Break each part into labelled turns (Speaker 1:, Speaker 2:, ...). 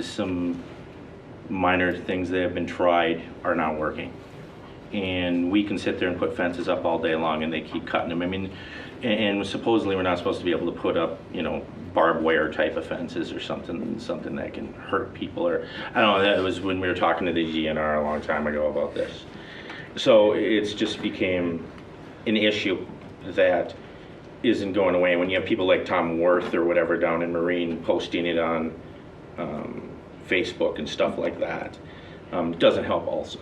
Speaker 1: some minor things that have been tried are not working. And we can sit there and put fences up all day long and they keep cutting them. I mean, a- and supposedly we're not supposed to be able to put up, you know, barbed wire type of fences or something, something that can hurt people or, I don't know, that was when we were talking to the DNR a long time ago about this. So it's just became an issue that isn't going away. When you have people like Tom Worth or whatever down in Marine posting it on um, Facebook and stuff like that, um, doesn't help also.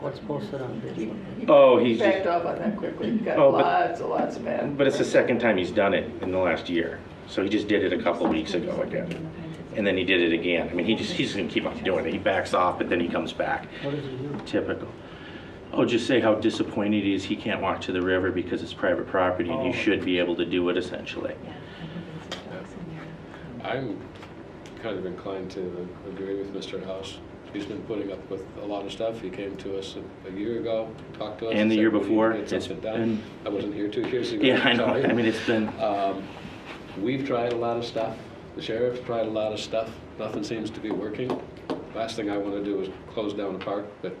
Speaker 2: What's posted on Facebook?
Speaker 1: Oh, he's,
Speaker 3: Backed off on that quickly, We've got
Speaker 1: Oh, but-
Speaker 3: lots and lots of ads.
Speaker 1: but it's the second time he's done it in the last year. So he just did it a couple weeks ago again. And then he did it again. I mean, he just, he's gonna keep on doing it. He backs off, but then he comes back.
Speaker 2: What does it do?
Speaker 1: Typical. Oh, just say how disappointed he is he can't walk to the river because it's private property and he should be able to do it essentially.
Speaker 4: I'm kind of inclined to agree with Mr. House. He's been putting up with a lot of stuff. He came to us a- a year ago, talked to us.
Speaker 1: And the
Speaker 4: said
Speaker 1: year
Speaker 4: we need to
Speaker 1: before,
Speaker 4: get
Speaker 1: it's
Speaker 4: something
Speaker 1: been-
Speaker 4: done. I wasn't here two years ago.
Speaker 1: Yeah, I know.
Speaker 4: sorry.
Speaker 1: I mean, it's been,
Speaker 4: Um, We've tried a lot of stuff. The sheriff's tried a lot of stuff. Nothing seems to be working. Last thing I want to do is close down a park, but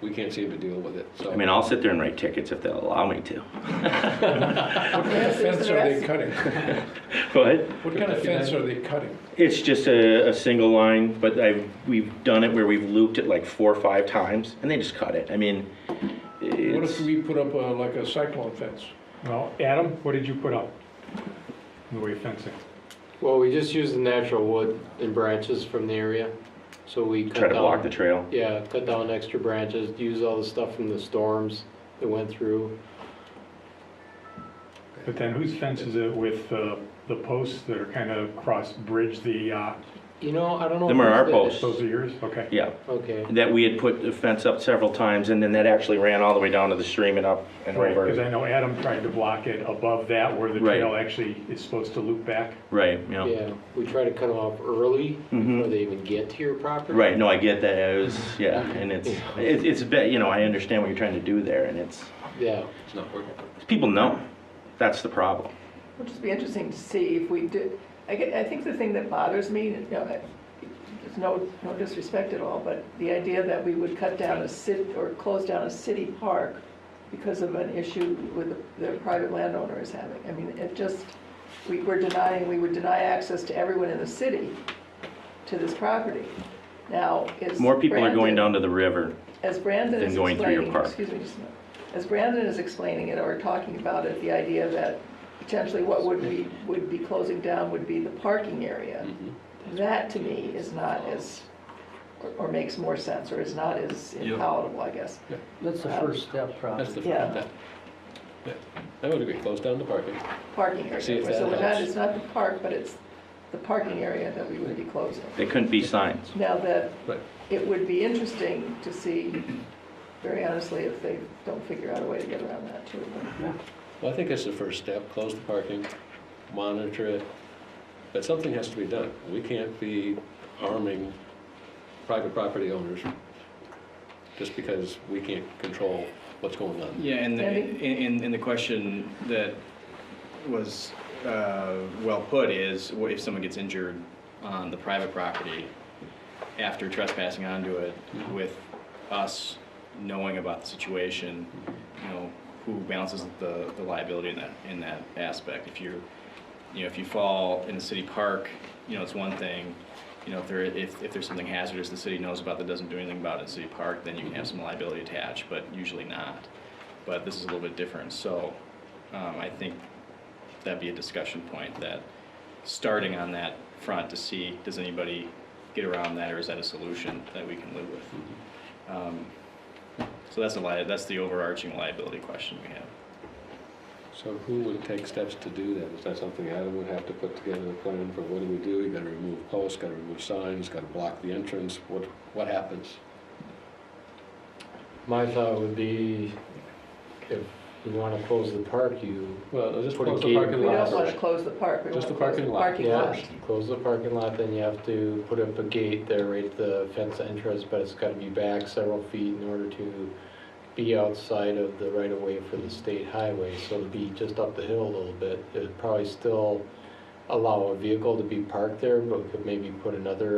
Speaker 4: we can't seem to deal with it, so.
Speaker 1: I mean, I'll sit there and write tickets if they'll allow me to.
Speaker 5: What kind of fence are they cutting?
Speaker 1: But
Speaker 5: What kind of fence are they cutting?
Speaker 1: It's just a, a single line, but I've, we've done it where we've looped it like four or five times, and they just cut it. I mean,
Speaker 5: What
Speaker 1: it's,
Speaker 5: if we put up a- like a cyclone fence?
Speaker 6: Well, Adam, what did you put up? The way fencing?
Speaker 7: Well, we just use the natural wood and branches from the area, so we cut
Speaker 1: try to
Speaker 7: down-
Speaker 1: block the trail.
Speaker 7: Yeah, cut down extra branches, use all the stuff from the storms that went through.
Speaker 6: But then whose fence is it with uh, the posts that are kind of cross bridge the, uh,
Speaker 7: You know, I don't know.
Speaker 1: Them
Speaker 7: if
Speaker 1: are
Speaker 7: we
Speaker 1: our
Speaker 7: did it.
Speaker 1: posts.
Speaker 6: those are yours? Okay.
Speaker 1: Yeah,
Speaker 7: Okay,
Speaker 1: that we had put the fence up several times, and then that actually ran all the way down to the stream and up and
Speaker 6: Right, because
Speaker 1: over.
Speaker 6: I know Adam tried to block it above that where the
Speaker 1: Right.
Speaker 6: trail actually is supposed to loop back.
Speaker 1: Right, you know.
Speaker 7: yeah, we try to cut them off early
Speaker 1: Mhm.
Speaker 7: before they even get to your property.
Speaker 1: Right, no, I get that. It was, yeah, and it's, it, it's, be- you know, I understand what you're trying to do there, and it's,
Speaker 7: Yeah,
Speaker 4: It's not working.
Speaker 1: people know. That's the problem.
Speaker 3: It'll just be interesting to see if we do, I get, I think the thing that bothers me, you know, I- it's no, no disrespect at all, but the idea that we would cut down a city, or close down a city park because of an issue with the private landowner is having, I mean, it just, we, we're denying, we would deny access to everyone in the city to this property. Now, is.
Speaker 1: More people are going
Speaker 3: Brandon-
Speaker 1: down to the river
Speaker 3: as Brandon
Speaker 1: than
Speaker 3: is
Speaker 1: going through your
Speaker 3: explaining,
Speaker 1: park.
Speaker 3: excuse me, just a minute. as Brandon is explaining it or talking about it, the idea that potentially what would we, would be closing down would be the parking area.
Speaker 1: Mm-hmm.
Speaker 4: Mm-hmm.
Speaker 3: That to me is not as, or- or makes more sense, or is not as palatable, I guess.
Speaker 2: That's the first step,
Speaker 4: Uh, That's
Speaker 2: probably.
Speaker 4: the,
Speaker 3: Yeah.
Speaker 4: that, that- I would agree, close down the parking.
Speaker 3: Parking area.
Speaker 4: See if that
Speaker 3: So we're not,
Speaker 4: helps.
Speaker 3: it's not the park, but it's the parking area that we would be closing.
Speaker 1: They couldn't be signs.
Speaker 3: Now that,
Speaker 4: Right.
Speaker 3: it would be interesting to see, very honestly, if they don't figure out a way to get around that too.
Speaker 4: Well, I think that's the first step, close the parking, monitor it, but something has to be done. We can't be arming private property owners just because we can't control what's going on.
Speaker 8: Yeah, and the, and,
Speaker 3: Andy?
Speaker 8: and- and the question that was uh, well put is, what if someone gets injured on the private property after trespassing onto it with us knowing about the situation, you know, who balances the, the liability in that, in that aspect? If you're, you know, if you fall in a city park, you know, it's one thing. You know, if there, if, if there's something hazardous the city knows about that doesn't do anything about it in city park, then you can have some liability attached, but usually not. But this is a little bit different, so, um, I think that'd be a discussion point that, starting on that front to see, does anybody get around that or is that a solution that we can live with? Um, So that's a li, that's the overarching liability question we have.
Speaker 4: So who would take steps to do that? Is that something Adam would have to put together a plan for? What do we do? You gotta remove posts, gotta remove signs, gotta block the entrance. What, what happens?
Speaker 7: my thought would be if you wanna close the park, you,
Speaker 4: Well, just
Speaker 7: Put a
Speaker 4: close the
Speaker 7: gate
Speaker 4: parking
Speaker 3: We don't want
Speaker 4: lot.
Speaker 3: to close the park. We
Speaker 4: Just
Speaker 3: wanna
Speaker 4: the
Speaker 3: close
Speaker 4: parking lot.
Speaker 7: yeah, close the parking lot, then you have to put up a gate there right at the fence entrance, but it's gotta be back several feet in order to be outside of the right of way for the state highway, so to be just up the hill a little bit. It'd probably still allow a vehicle to be parked there, but could maybe put another